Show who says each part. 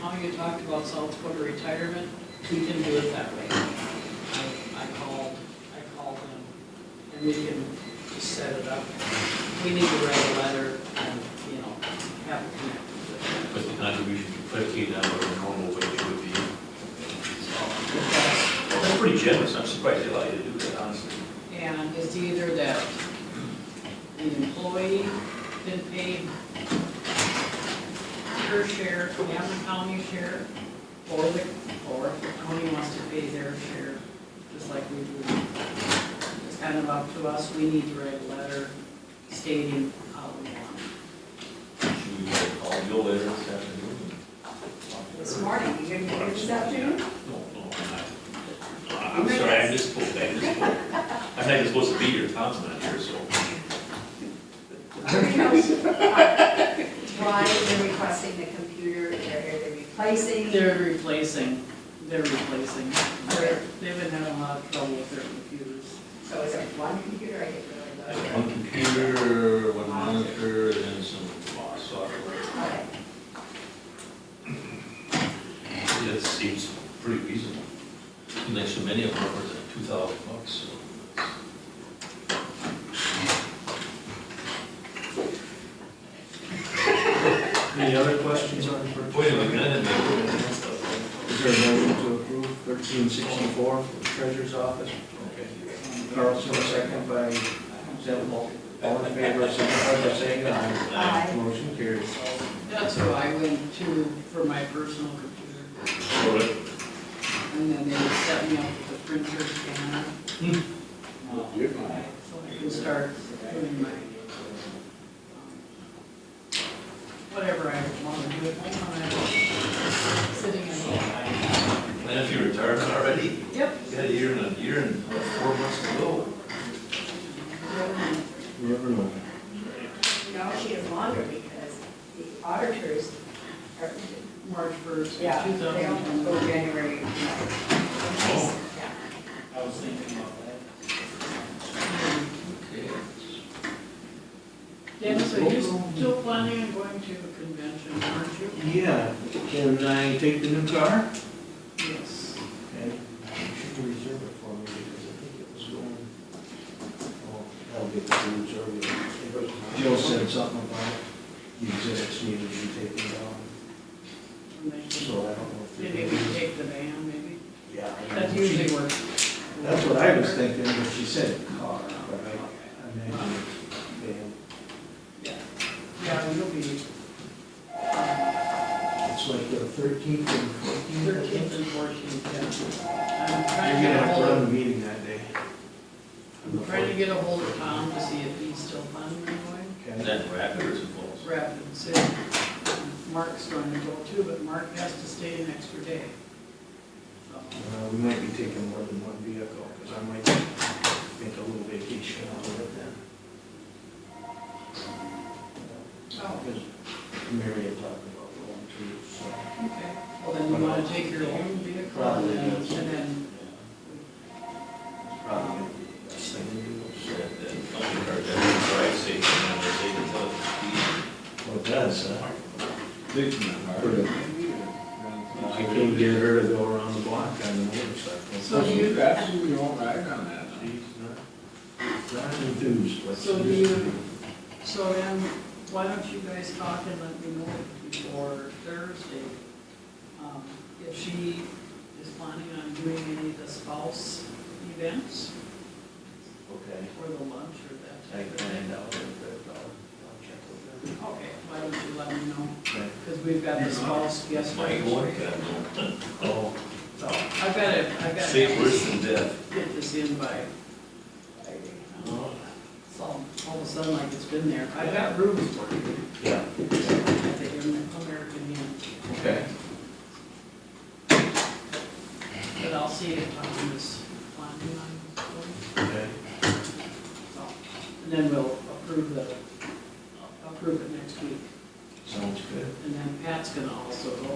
Speaker 1: Montague talked about South Dakota retirement, we can do it that way. I I called, I called them, and we can just set it up. We need to write a letter and, you know, have it connected with
Speaker 2: But the contribution to fifteen out of our normal wage would be.
Speaker 1: them.
Speaker 2: Well, That's pretty generous, I'm surprised they allow you to do that, honestly.
Speaker 1: And it's either that the employee been paid her share, and the county share, or the, or if the county wants to pay their share, just like we do. It's kind of up to us, we need to write a letter stating how we want. it.
Speaker 3: Should we call Bill later this afternoon?
Speaker 4: This morning, you didn't get it this afternoon?
Speaker 2: No, no, I'm not. I'm sorry, I misspoke, I misspoke. I'm not even supposed to be here, Tom's not here, so.
Speaker 4: Why uh, they're requesting the computer, they're, they're replacing, they're
Speaker 1: They're replacing, they're replacing, they're, they've been having a lot of trouble with their computers.
Speaker 4: so is it one computer, I get
Speaker 3: I
Speaker 4: really
Speaker 3: have
Speaker 4: low?
Speaker 3: One computer, one monitor, and then some software.
Speaker 4: Okay.
Speaker 2: That seems pretty reasonable. And there's so many of them, it's like two thousand bucks, so.
Speaker 5: Any other questions on purchase?
Speaker 2: Wait a minute,
Speaker 5: Is there a motion to approve thirteen sixty-four for the treasurer's office? Carlson, second by Zebel. All in favor, signify by saying aye.
Speaker 4: Aye.
Speaker 5: Motion carries.
Speaker 1: That's who I went to for my personal computer.
Speaker 2: okay.
Speaker 1: And then they set me up with a printer scanner. So I can start doing my, um, whatever I want to do at home, when I'm sitting in.
Speaker 2: And if you retired already,
Speaker 1: Yep.
Speaker 2: you had a year and a year and what, four months to go.
Speaker 5: Never know.
Speaker 4: No, she is longer because the auditors are,
Speaker 1: March first, two
Speaker 4: yeah, they don't go
Speaker 1: thousand.
Speaker 4: January. no. Yeah.
Speaker 1: I was thinking about that.
Speaker 2: Okay.
Speaker 1: Dennis, are you still planning on going to a convention, aren't you?
Speaker 5: Yeah, can I take the new car?
Speaker 1: Yes.
Speaker 5: Okay. You should reserve it for me because I think it was going. Oh, That'll be the reserve. Jill said something about the exhibits needed to be taken down,
Speaker 1: And then
Speaker 5: so I don't know if. they're-
Speaker 1: Maybe we can take the van, maybe.
Speaker 5: Yeah. I
Speaker 1: That's
Speaker 5: know.
Speaker 1: usually what.
Speaker 5: That's what I was thinking, but she said car, but I imagine it's
Speaker 1: Yeah, Yeah, you'll be um,
Speaker 5: van. It's like the thirteenth and
Speaker 1: thirteenth
Speaker 5: fourteenth.
Speaker 1: and fourteenth, yeah. I'm
Speaker 5: You're
Speaker 1: trying
Speaker 5: gonna
Speaker 1: to get a
Speaker 5: have to run
Speaker 1: hold,
Speaker 5: the meeting that day.
Speaker 1: I'm trying to get a hold of Tom to see if he's still planning on going.
Speaker 2: And
Speaker 5: Okay.
Speaker 2: then Rapids involves.
Speaker 1: Rapid City, Mark's going to go too, but Mark has to stay an extra day. So,
Speaker 5: Uh, we might be taking more than one vehicle, because I might make a little vacation out of it then.
Speaker 1: Oh.
Speaker 5: Because Mary had talked about going too, so.
Speaker 1: okay, well then you want to take your own vehicle and
Speaker 5: Probably
Speaker 1: then,
Speaker 5: that's-
Speaker 1: and then,
Speaker 5: It's Probably gonna be the best thing to do.
Speaker 2: That, that, that drive safe, and they can tell it's speed.
Speaker 5: Well, it does, huh?
Speaker 3: Big number.
Speaker 5: I can't get her to go around the block on the motorcycle.
Speaker 1: So do you-
Speaker 3: Absolutely all right on that. huh?
Speaker 5: She's not, not enthused, but
Speaker 1: So
Speaker 5: she
Speaker 1: do
Speaker 5: used
Speaker 1: you-
Speaker 5: to be.
Speaker 1: so then, why don't you guys talk and let me know before Thursday? um, If she is planning on doing any of the spouse events?
Speaker 5: Okay,
Speaker 1: Or the lunch or that
Speaker 5: I
Speaker 1: type of
Speaker 5: can
Speaker 1: thing.
Speaker 5: find out, but I'll, I'll check with her.
Speaker 1: Okay, why don't you let me know,
Speaker 5: Okay.
Speaker 1: because we've got the spouse guest
Speaker 2: Might
Speaker 1: registry.
Speaker 2: work, I don't know.
Speaker 5: Oh,
Speaker 1: So, I've got to, I've got
Speaker 2: Safe worse
Speaker 1: to
Speaker 2: than death.
Speaker 1: get this in by, um, it's all, all of a sudden like it's been there. I've got rooms for you
Speaker 5: yeah,
Speaker 1: at the American Inn,
Speaker 5: okay.
Speaker 1: but I'll see if Tom is planning on going.
Speaker 5: Okay.
Speaker 1: So, And then we'll approve the, approve it next week.
Speaker 5: Sounds good.
Speaker 1: And then Pat's going to also go